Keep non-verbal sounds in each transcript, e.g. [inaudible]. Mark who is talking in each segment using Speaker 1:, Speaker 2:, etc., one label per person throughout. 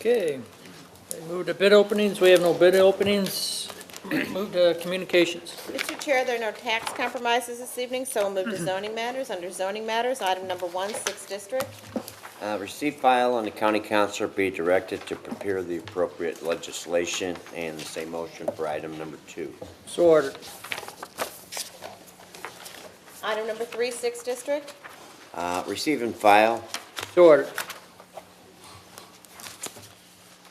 Speaker 1: Okay, move to bid openings, we have no bid openings. [clears throat] Move to communications.
Speaker 2: Mr. Chair, there are no tax compromises this evening, so we'll move to zoning matters. Under zoning matters, item number one, sixth district.
Speaker 3: Uh, Receive file and the county council be directed to prepare the appropriate legislation and the same motion for item number two.
Speaker 1: So ordered.
Speaker 2: Item number three, sixth district.
Speaker 3: Uh, Receive and file,
Speaker 1: So ordered.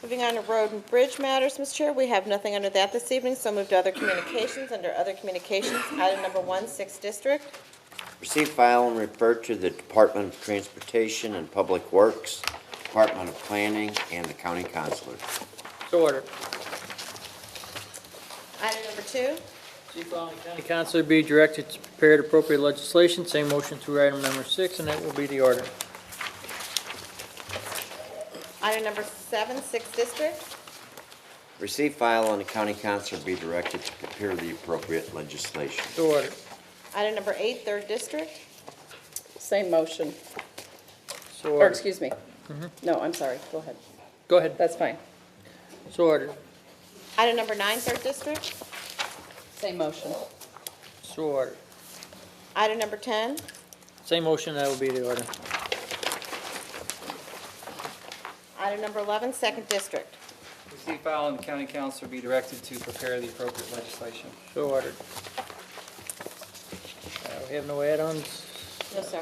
Speaker 2: Moving on to road and bridge matters, Mr. Chair, we have nothing under that this evening, so move to other communications. Under other communications, item number one, sixth district.
Speaker 3: receive file and refer to the Department of Transportation and Public Works, Department of Planning, and the county councilor.
Speaker 1: So ordered.
Speaker 2: Item number two.
Speaker 1: County council be directed to prepare appropriate legislation, same motion through item number six, and that will be the order.
Speaker 2: Item number seven, sixth district.
Speaker 3: Receive file and the county council be directed to prepare the appropriate legislation.
Speaker 1: So ordered.
Speaker 2: Item number eight, third district.
Speaker 4: Same motion,
Speaker 1: So
Speaker 4: or
Speaker 1: ordered.
Speaker 4: excuse me. No, I'm sorry, go ahead,
Speaker 1: Go ahead.
Speaker 4: that's fine.
Speaker 1: So ordered.
Speaker 2: Item number nine, third district.
Speaker 4: Same motion.
Speaker 1: So ordered.
Speaker 2: Item number 10.
Speaker 1: Same motion, that will be the order.
Speaker 2: Item number 11, second district.
Speaker 5: Receive, file, and the county council be directed to prepare the appropriate legislation.
Speaker 1: So ordered. Uh, We have no add-ons.
Speaker 2: No, sir.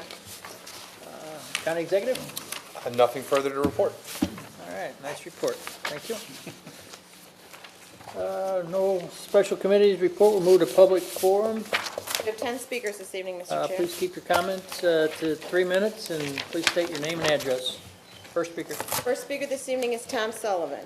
Speaker 1: County executive?
Speaker 6: And nothing further to report.
Speaker 1: All right, nice report. Thank you. Uh, No special committees report. We'll move to public forum.
Speaker 2: We have 10 speakers this evening,
Speaker 1: Uh,
Speaker 2: Mr. Chair.
Speaker 1: Please keep your comments uh, to three minutes, and please state your name and address. First speaker.
Speaker 2: First speaker this evening is Tom Sullivan.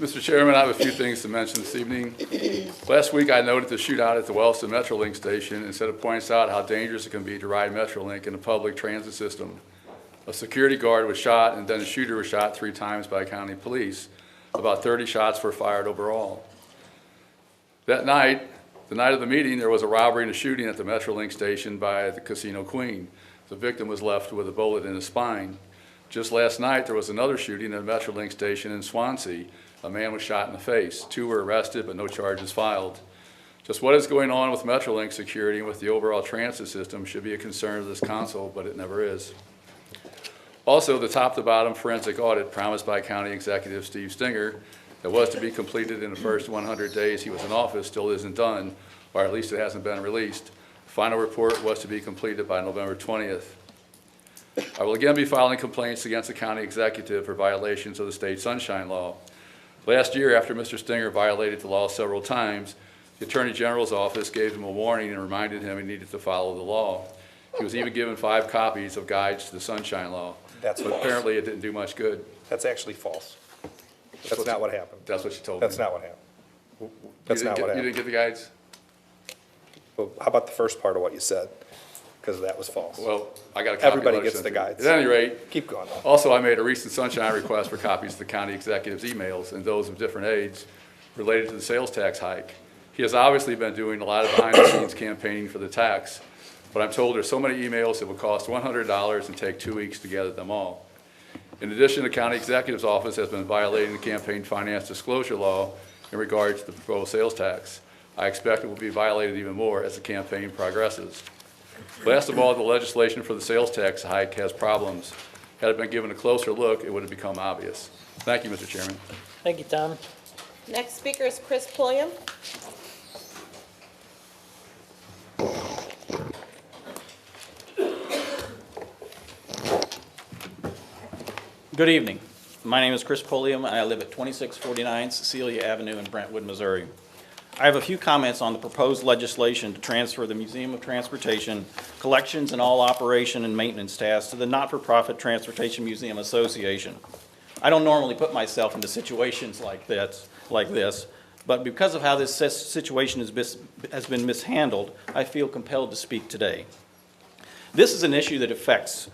Speaker 7: Mr. Chairman, I have a few things to mention this evening. Last week, I noted the shootout at the Wellston Metrolink station, and said it points out how dangerous it can be to ride Metrolink in a public transit system. A security guard was shot, and then a shooter was shot three times by county police. About 30 shots were fired overall. That night, the night of the meeting, there was a robbery and a shooting at the Metrolink station by the Casino Queen. The victim was left with a bullet in his spine. Just last night, there was another shooting at a Metrolink station in Swansea. A man was shot in the face. Two were arrested, but no charges filed. Just what is going on with Metrolink security and with the overall transit system should be a concern of this council, but it never is. Also, the top-to-bottom forensic audit promised by County Executive Steve Stinger that was to be completed in the first 100 days he was in office still isn't done, or at least it hasn't been released. Final report was to be completed by November 20th. I will again be filing complaints against the county executive for violations of the state sunshine law. Last year, after Mr. Stinger violated the law several times, the Attorney General's office gave him a warning and reminded him he needed to follow the law. He was even given five copies of guides to the sunshine law.
Speaker 6: That's
Speaker 7: But
Speaker 6: false.
Speaker 7: apparently, it didn't do much good.
Speaker 6: That's actually false. That's not what happened.
Speaker 7: That's what you told me.
Speaker 6: That's not what happened.
Speaker 7: You
Speaker 6: That's
Speaker 7: didn't
Speaker 6: not
Speaker 7: get-
Speaker 6: what
Speaker 7: You
Speaker 6: happened.
Speaker 7: didn't get the guides?
Speaker 6: Well, How about the first part of what you said? Because that was false.
Speaker 7: Well, I got a copy. of
Speaker 6: Everybody
Speaker 7: what I
Speaker 6: gets
Speaker 7: sent
Speaker 6: the
Speaker 7: you.
Speaker 6: guides.
Speaker 7: At any rate,
Speaker 6: Keep going. though.
Speaker 7: Also, I made a recent sunshine request for copies of the county executive's emails and those of different aides related to the sales tax hike. He has obviously been doing a lot of behind-the-scenes campaigning for the tax, but I'm told there's so many emails it will cost $100 and take two weeks to gather them all. In addition, the county executive's office has been violating the campaign finance disclosure law in regards to the proposed sales tax. I expect it will be violated even more as the campaign progresses. Last of all, the legislation for the sales tax hike has problems. Had it been given a closer look, it would have become obvious. Thank you, Mr. Chairman.
Speaker 1: Thank you, Tom.
Speaker 2: Next speaker is Chris Pulliam.
Speaker 8: Good evening. My name is Chris Polium, and I live at 2649 Cecilia Avenue in Brentwood, Missouri. I have a few comments on the proposed legislation to transfer the Museum of Transportation collections and all operation and maintenance tasks to the Not-for-Profit Transportation Museum Association. I don't normally put myself into situations like this, like this, but because of how this sis- situation has bis- has been mishandled, I feel compelled to speak today. This is an issue that affects